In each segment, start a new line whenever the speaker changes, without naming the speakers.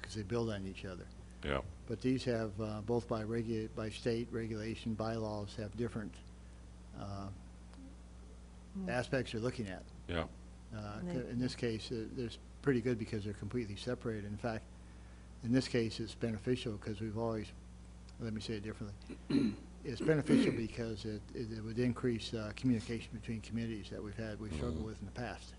because they build on each other.
yeah.
But these have, uh, both by regu, by state regulation, bylaws, have different uh, aspects you're looking at.
Yeah.
Uh,
Hmm. And they-
In this case, uh, there's pretty good because they're completely separated. In fact, in this case, it's beneficial because we've always, let me say it differently. It's beneficial because it, it it would increase uh, communication between communities that we've had, we've struggled with in the past.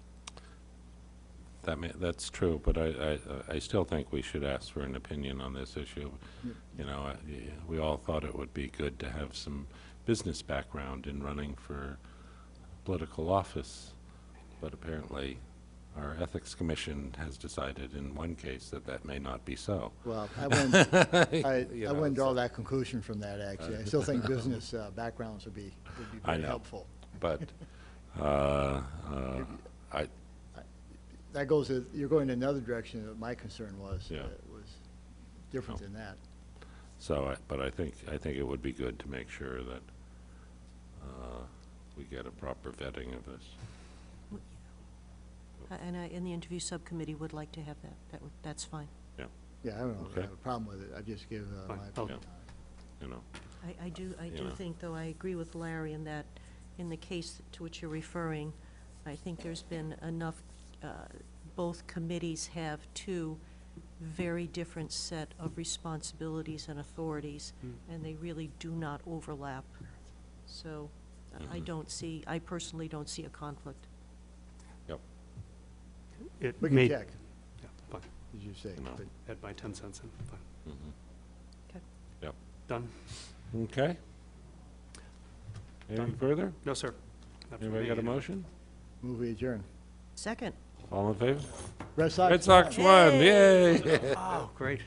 That may, that's true, but I, I, I still think we should ask for an opinion on this issue.
Yep.
You know, I- y- we all thought it would be good to have some business background in running for political office, but apparently our Ethics Commission has decided in one case that that may not be so.
Well, I wouldn't, I,
You
I
know,
wouldn't draw
so-
that conclusion from that, actually. I still think business uh, backgrounds would be, would be
I
very
know.
helpful.
But, uh, uh, I,
That goes, to- you're going in another direction that my concern was,
Yeah. Oh.
uh, was different
No.
than that.
So, I- but I think, I think it would be good to make sure that uh, we get a proper vetting of this.
Uh, And I, and the interview subcommittee would like to have that, that would, that's fine.
Yeah, I don't know, if
Okay.
I have a problem with it. I just give uh,
Fine.
my
Oh.
opinion.
You know,
I, I do, I
Yeah.
do think, though, I agree with Larry in that, in the case to which you're referring, I think there's been enough, uh, both committees have two very different set of responsibilities and authorities, and they really do not overlap. So I
Mhm.
don't see, I personally don't see a conflict.
It
We can
may,
check,
yeah, fine.
as you say.
No.
but-
add my 10 cents in, fine.
mhm.
Done?
Okay. Anything
Done.
further?
No, sir. Not for
Anybody
me.
got a motion?
Move we adjourn.
Second.
All in favor?
Red Sox.
Red Sox won, yay!
Oh, great.